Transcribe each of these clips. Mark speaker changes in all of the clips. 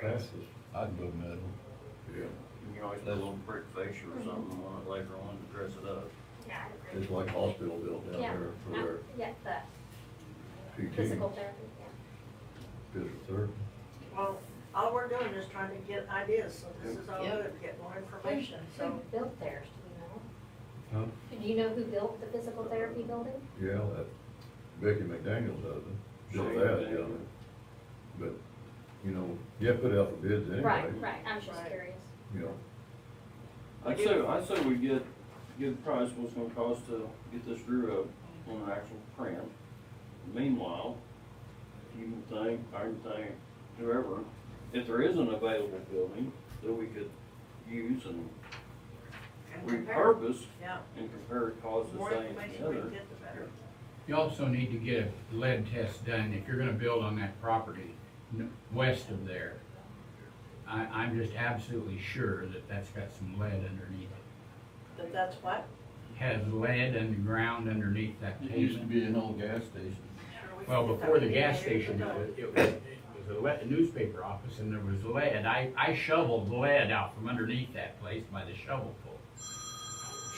Speaker 1: passes.
Speaker 2: I'd go middle.
Speaker 1: Yeah.
Speaker 3: You can always put a little brick fascia or something on it later on to dress it up.
Speaker 4: Yeah, I agree.
Speaker 1: It's like hospital bill down
Speaker 4: Yeah,
Speaker 1: there for
Speaker 4: Not-
Speaker 1: their
Speaker 4: Yeah, the
Speaker 1: PT,
Speaker 4: physical therapy, yeah.
Speaker 1: physical therapy.
Speaker 5: Well, all we're doing is trying to get ideas, so this is all
Speaker 6: Yeah.
Speaker 5: good, get more information,
Speaker 4: Who
Speaker 5: so.
Speaker 4: built theirs, do you
Speaker 1: Huh?
Speaker 4: know? Do you know who built the physical therapy building?
Speaker 1: Yeah, that Becky McDaniel does it, does
Speaker 3: Shane
Speaker 1: that,
Speaker 3: McDaniel.
Speaker 1: yeah. But, you know, you have to put out the bids anyway,
Speaker 4: Right, right, I'm just
Speaker 5: Right.
Speaker 4: curious.
Speaker 1: you know.
Speaker 3: I'd say, I'd say we get, get a price, what it's gonna cost to get this drew up on an actual print. Meanwhile, you can think, I can think, whoever, if there is an available building that we could use and
Speaker 5: and compare.
Speaker 3: repurpose
Speaker 5: Yeah,
Speaker 3: and compare costs
Speaker 5: the
Speaker 3: the
Speaker 5: more
Speaker 3: same
Speaker 5: information we
Speaker 3: together.
Speaker 5: get, the better.
Speaker 7: You also need to get a lead test done if you're gonna build on that property n- west of there. I, I'm just absolutely sure that that's got some lead underneath it.
Speaker 5: But that's what,
Speaker 7: Has lead underground underneath that
Speaker 2: It used to
Speaker 7: pavement.
Speaker 2: be an old gas station.
Speaker 5: sure we
Speaker 7: Well,
Speaker 5: can get
Speaker 7: before
Speaker 5: that
Speaker 7: the gas
Speaker 5: information,
Speaker 7: station, it
Speaker 5: but
Speaker 7: was, it was, it was a le- newspaper office and there was lead. I, I shoveled lead out from underneath that place by the shovelful.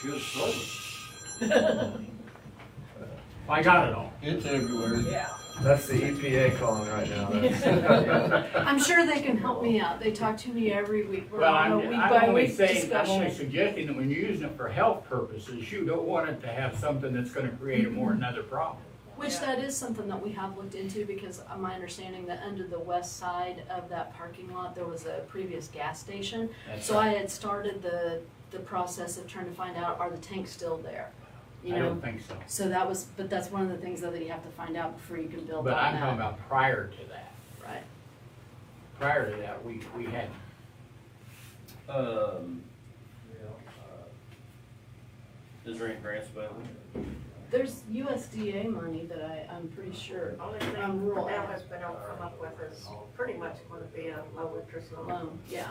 Speaker 3: Should have sold it.
Speaker 7: I got it all.
Speaker 2: It's everywhere.
Speaker 5: Yeah,
Speaker 8: That's the EPA calling right now. That's-
Speaker 6: I'm sure they can help me out. They talk to me every week. We're
Speaker 7: Well,
Speaker 6: on a
Speaker 7: I'm,
Speaker 6: week
Speaker 7: I'm
Speaker 6: by
Speaker 7: only
Speaker 6: week
Speaker 7: saying, I'm only
Speaker 6: discussion.
Speaker 7: suggesting that when you're using it for health purposes, you don't want it to have something that's gonna create a
Speaker 6: Mm-hmm.
Speaker 7: more another problem.
Speaker 6: Which that is something that we have looked into because uh, my understanding that under the west side of that parking lot, there was a previous gas station. So I had started the, the process of trying to find out, are the tanks still there? You
Speaker 7: I don't
Speaker 6: know,
Speaker 7: think so.
Speaker 6: so that was, but that's one of the things though that you have to find out before you can build
Speaker 7: But
Speaker 6: on
Speaker 7: I'm talking
Speaker 6: that.
Speaker 7: about prior to that.
Speaker 6: Right.
Speaker 7: Prior to that, we, we had,
Speaker 3: Um, is there any grants available?
Speaker 6: There's USDA money that I, I'm pretty sure,
Speaker 5: only thing
Speaker 6: Um, rural
Speaker 5: now
Speaker 6: ag.
Speaker 5: has been able to come up with is pretty much gonna be a low interest loan.
Speaker 6: um, yeah,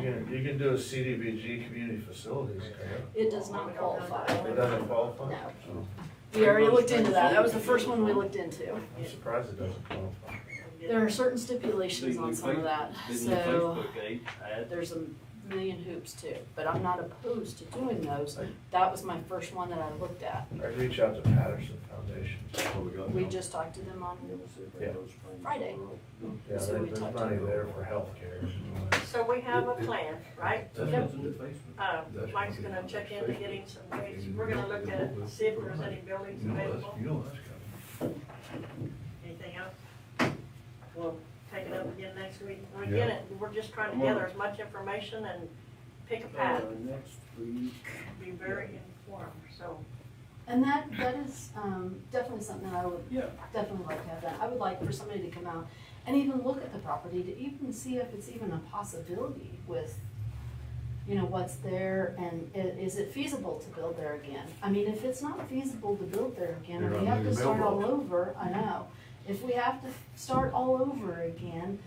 Speaker 8: You can- you can do a CDBG community facilities. can't
Speaker 6: it does not qualify.
Speaker 8: you? It doesn't qualify? Oh,
Speaker 6: No. We already looked into that. That was the first one we looked into.
Speaker 8: I'm surprised it doesn't qualify.
Speaker 6: There are certain stipulations on some of that,
Speaker 3: Didn't the
Speaker 6: so
Speaker 3: Facebook aid add?
Speaker 6: there's a million hoops too, but I'm not opposed to doing those. That was my first one that I looked at.
Speaker 8: I'd reach out to Patterson Foundation.
Speaker 1: What we got
Speaker 6: We
Speaker 1: now?
Speaker 6: just talked to them on,
Speaker 8: Yeah.
Speaker 6: Friday.
Speaker 8: Yeah,
Speaker 6: So
Speaker 8: there-
Speaker 6: we
Speaker 8: there's
Speaker 6: talked
Speaker 8: money
Speaker 6: to-
Speaker 8: there for healthcare.
Speaker 5: So we have a plan, right?
Speaker 1: That's
Speaker 6: Yep.
Speaker 1: what
Speaker 3: in the Facebook.
Speaker 5: Uh, Mike's gonna check into getting some dates, we're gonna look at it, and see if there's any buildings
Speaker 1: You know, that's,
Speaker 5: available,
Speaker 1: you know, that's kind
Speaker 5: anything else? We'll take it up again next week, we get it, we're just trying to gather as much information and pick a path,
Speaker 3: Uh, next week,
Speaker 5: be very informed, so.
Speaker 6: and that, that is, um, definitely something that I would
Speaker 3: yeah,
Speaker 6: definitely like to have that. I would like for somebody to come out and even look at the property to even see if it's even a possibility with, you know, what's there and i- is it feasible to build there again? I mean, if it's not feasible to build there again,
Speaker 1: You're
Speaker 6: if we
Speaker 1: gonna
Speaker 6: have
Speaker 1: need
Speaker 6: to
Speaker 1: a
Speaker 6: start all
Speaker 1: mailbox.
Speaker 6: over, I know. If we have to start all over again,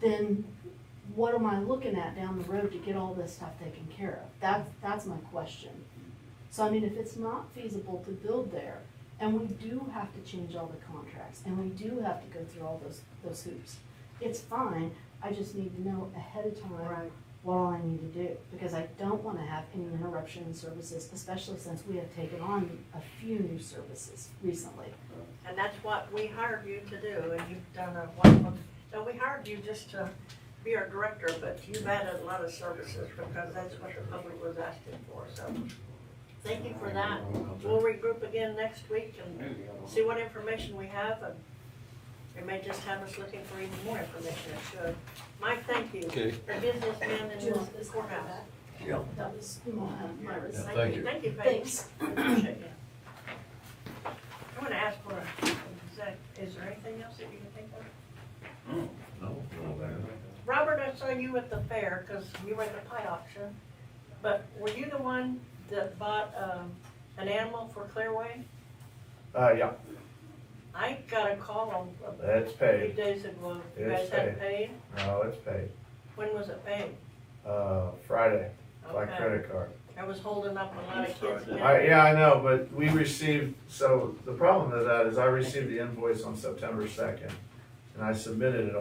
Speaker 6: then what am I looking at down the road to get all this stuff taken care of? That's, that's my question. So I mean, if it's not feasible to build there, and we do have to change all the contracts, and we do have to go through all those, those hoops, it's fine, I just need to know ahead of time what all I need to do, because I don't wanna have any interruption in services, especially since we have taken on a few new services recently.
Speaker 5: And that's what we hired you to do, and you've done a wonderful, no, we hired you just to be our director, but you've added a lot of services, because that's what the public was asking for, so. Thank you for that, we'll regroup again next week and
Speaker 3: maybe, I don't
Speaker 5: see what information we have, and it may just have us looking for even more information, it should. Mike, thank you,
Speaker 2: Okay.
Speaker 5: the businessman in the courthouse.
Speaker 6: That was my, my
Speaker 1: Yeah,
Speaker 6: response.
Speaker 1: thank you.
Speaker 5: Thank you, Paige.
Speaker 6: Thanks.
Speaker 5: Appreciate you. I'm gonna ask for, a- is that, is there anything else that you can think of?
Speaker 1: No, no, man.
Speaker 5: Robert, I saw you at the fair, cause you were at the pie auction, but were you the one that bought, um, an animal for Clearway?
Speaker 8: Uh, yeah,
Speaker 5: I got a call on, a
Speaker 8: it's
Speaker 5: few
Speaker 8: paid.
Speaker 5: days ago, you
Speaker 8: It's
Speaker 5: guys hadn't paid,
Speaker 8: No, it's paid.
Speaker 5: when was it paid?
Speaker 8: Uh, Friday, by
Speaker 5: Okay,
Speaker 8: credit card.
Speaker 5: I was holding up a lot of kids.
Speaker 3: Sorry.
Speaker 8: I, yeah, I know, but we received, so the problem with that is I received the invoice on September second, and I submitted it on